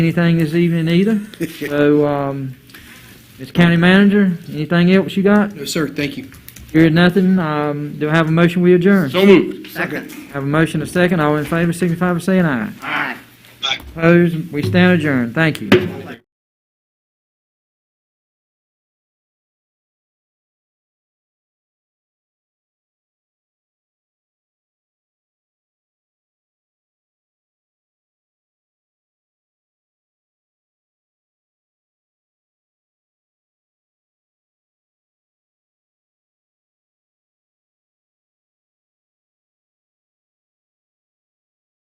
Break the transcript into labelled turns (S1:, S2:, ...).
S1: anything this evening either. So, um, Ms. County Manager, anything else you got?
S2: No, sir, thank you.
S1: Hear nothing, um, do I have a motion, we adjourn?
S3: So moved.
S2: Second.
S1: Have a motion, a second, all in favor, signify by saying aye.
S3: Aye.
S1: Opposed, we stand adjourned, thank you.